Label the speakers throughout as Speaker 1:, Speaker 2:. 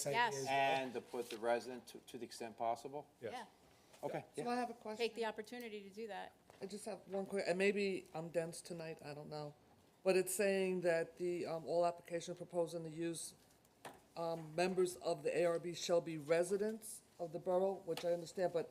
Speaker 1: site
Speaker 2: Yes.
Speaker 1: E is-
Speaker 3: And to put the resident to, to the extent possible?
Speaker 2: Yeah,
Speaker 3: Okay.
Speaker 4: So I have a question.
Speaker 2: take the opportunity to do that.
Speaker 4: I just have one quick, and maybe I'm dense tonight, I don't know. But it's saying that the, um, all application proposing the use, um, members of the ARB shall be residents of the borough, which I understand, but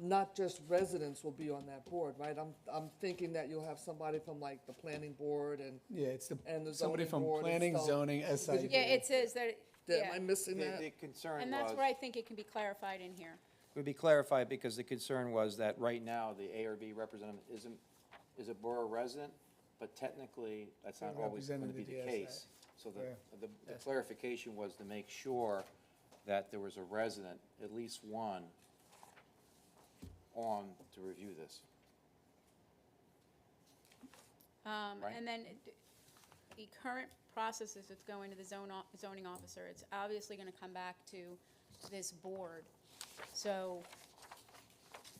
Speaker 4: not just residents will be on that board, right? I'm, I'm thinking that you'll have somebody from like the planning board and,
Speaker 1: Yeah, it's the,
Speaker 4: And the
Speaker 1: somebody
Speaker 4: zoning
Speaker 1: from
Speaker 4: board and
Speaker 1: planning,
Speaker 4: stuff.
Speaker 1: zoning, E. SID.
Speaker 2: Yeah, it says that,
Speaker 4: am I
Speaker 2: yeah,
Speaker 4: missing
Speaker 3: The,
Speaker 4: that?
Speaker 3: the concern
Speaker 2: and that's
Speaker 3: was,
Speaker 2: where I think it can be clarified in here.
Speaker 3: would be clarified, because the concern was that right now, the ARB representative isn't, is a borough resident, but technically, that's not
Speaker 1: They're
Speaker 3: always gonna be
Speaker 1: represented
Speaker 3: the
Speaker 1: the DSA.
Speaker 3: case. So
Speaker 1: Yeah.
Speaker 3: the, the- the clarification was to make sure that there was a resident, at least one, on to review this.
Speaker 2: Um,
Speaker 3: Right.
Speaker 2: and then d- the current process is it's going to the zone, o- zoning officer. It's obviously gonna come back to this board. So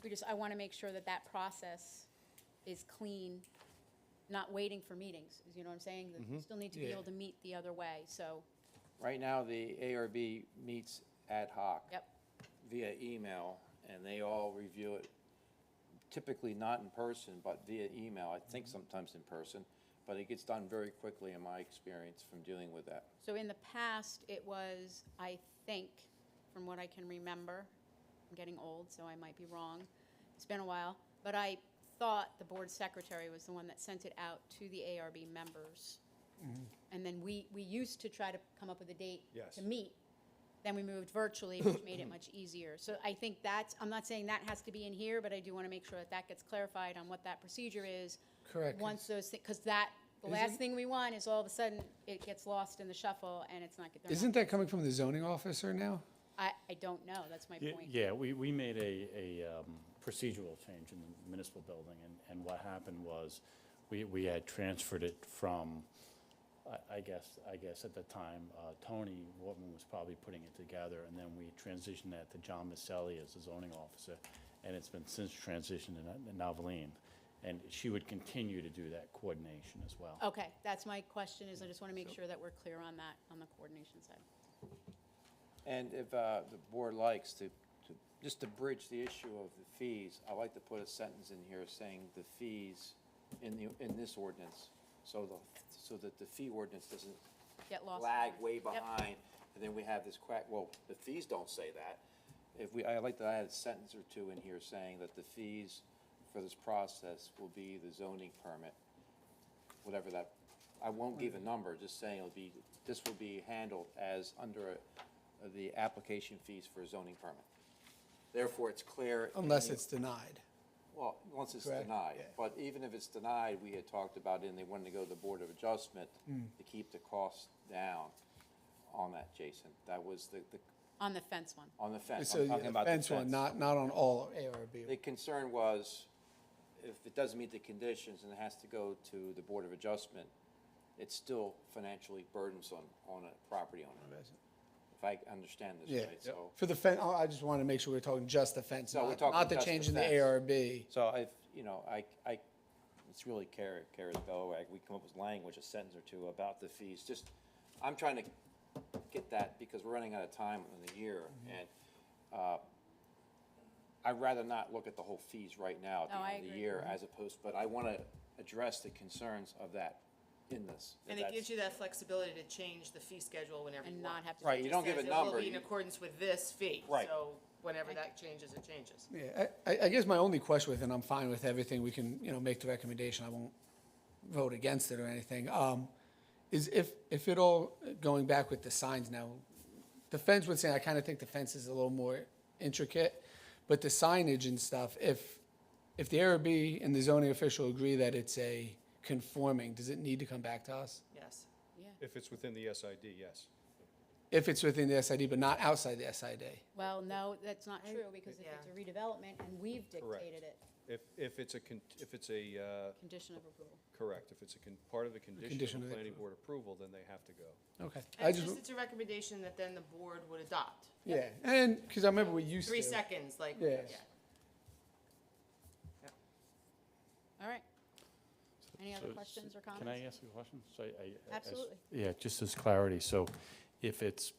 Speaker 2: we just, I wanna make sure that that process is clean, not waiting for meetings, you know what I'm saying? That we Still need to be
Speaker 1: Yeah.
Speaker 2: able to meet the other way, so,
Speaker 3: Right now, the ARB meets ad hoc.
Speaker 2: yep,
Speaker 3: via email, and they all review it, typically not in person, but via email, I think sometimes in person, but it gets done very quickly in my experience from dealing with that.
Speaker 2: So in the past, it was, I think, from what I can remember, I'm getting old, so I might be wrong, it's been a while, but I thought the board secretary was the one that sent it out to the ARB members. And then we, we used to try to come up with a date
Speaker 1: Mm-hmm. Yes.
Speaker 2: to meet. Then we moved virtually, which made it much easier. So I think that's, I'm not saying that has to be in here, but I do want to make sure that that gets clarified on what that procedure is.
Speaker 1: Correct.
Speaker 2: Once those, because that, the last thing we want is all of a sudden, it gets lost in the shuffle and it's not, get- they're
Speaker 1: Isn't
Speaker 2: not,
Speaker 1: that coming from the zoning officer now?
Speaker 2: I, I don't know, that's my
Speaker 5: Ye-
Speaker 2: point.
Speaker 5: Yeah, we, we made a, a um, procedural change in the municipal building, and, and what happened was, we, we had transferred it from, I, I guess, I guess at the time, uh, Tony Wortman was probably putting it together, and then we transitioned that to John Maselli as the zoning officer, and it's been since transitioned to Noveline, and she would continue to do that coordination as well.
Speaker 2: Okay, that's my question, is I just want to make sure that we're clear on that, on the coordination side.
Speaker 3: And if uh, the board likes to, to- just to bridge the issue of the fees, I'd like to put a sentence in here saying the fees in the, in this ordinance, so the, so that the fee ordinance doesn't
Speaker 2: Get lost.
Speaker 3: lag way
Speaker 2: Yep.
Speaker 3: behind, and then we have this quack, well, the fees don't say that. If we, I like that I had a sentence or two in here saying that the fees for this process will be the zoning permit, whatever that, I won't give a number, just saying it'll be, this will be handled as under uh, the application fees for a zoning permit. Therefore, it's clear. in
Speaker 1: Unless
Speaker 3: the-
Speaker 1: it's denied.
Speaker 3: well, once it's
Speaker 1: Correct,
Speaker 3: denied,
Speaker 1: yeah.
Speaker 3: but even if it's denied, we had talked about and they wanted to go to the Board of Adjustment
Speaker 1: Mm.
Speaker 3: to keep the costs down on that, Jason. That was the, the,
Speaker 2: On the fence one.
Speaker 3: on the fence,
Speaker 1: So
Speaker 3: I'm talking
Speaker 1: the
Speaker 3: about the
Speaker 1: fence
Speaker 3: fence.
Speaker 1: one, not, not on all ARB.
Speaker 3: The concern was, if it doesn't meet the conditions and it has to go to the Board of Adjustment, it's still financially burdensome on a property owner, if I understand this
Speaker 1: Yeah,
Speaker 3: right, so.
Speaker 1: for the fence, I just want to make sure we're talking just the fence,
Speaker 3: No, we're
Speaker 1: not,
Speaker 3: talking
Speaker 1: not the
Speaker 3: just the
Speaker 1: change in the
Speaker 3: fence.
Speaker 1: ARB.
Speaker 3: So I, you know, I, I, it's really Kara, Kara's Bellwag, we come up with language, a sentence or two about the fees, just, I'm trying to get that, because we're running out of time in the year, and, uh, I'd rather not look at the whole fees right now at
Speaker 2: No, I
Speaker 3: the end of the
Speaker 2: agree.
Speaker 3: year as opposed, but I wanna address the concerns of that in this.
Speaker 6: And it gives you that flexibility to change the fee schedule whenever you
Speaker 2: And
Speaker 6: want.
Speaker 2: not have to.
Speaker 3: Right, you don't give a
Speaker 6: Says it will
Speaker 3: number,
Speaker 6: be in
Speaker 3: you-
Speaker 6: accordance with this fee.
Speaker 3: Right.
Speaker 6: So whenever that changes, it changes.
Speaker 1: Yeah, I- I, I guess my only question with, and I'm fine with everything, we can, you know, make the recommendation, I won't vote against it or anything, um, is if, if it all, going back with the signs now, the fence would say, I kind of think the fence is a little more intricate, but the signage and stuff, if, if the ARB and the zoning official agree that it's a conforming, does it need to come back to us?
Speaker 6: Yes.
Speaker 7: If it's within the SID, yes.
Speaker 1: If it's within the SID, but not outside the SID?
Speaker 2: Well, no, that's not true, because if it's a
Speaker 6: Yeah.
Speaker 2: redevelopment and we've
Speaker 7: Correct.
Speaker 2: dictated it,
Speaker 7: If, if it's a, con- if it's a, uh,
Speaker 2: condition of approval.
Speaker 7: correct, if it's a, con- part of the condition
Speaker 1: condition of
Speaker 7: of
Speaker 1: the-
Speaker 7: planning board approval, then they have to go.
Speaker 1: Okay.
Speaker 6: And
Speaker 1: I
Speaker 6: it's
Speaker 1: just,
Speaker 6: just, it's a recommendation that then the board would adopt.
Speaker 1: yeah, and, because I remember we used to.
Speaker 6: Three seconds, like, yeah.
Speaker 1: Yes.
Speaker 2: All right. Any other questions or comments?
Speaker 5: Can I ask you a question? So I- I- I- as-
Speaker 2: Absolutely.
Speaker 5: Yeah, just as clarity, so if it's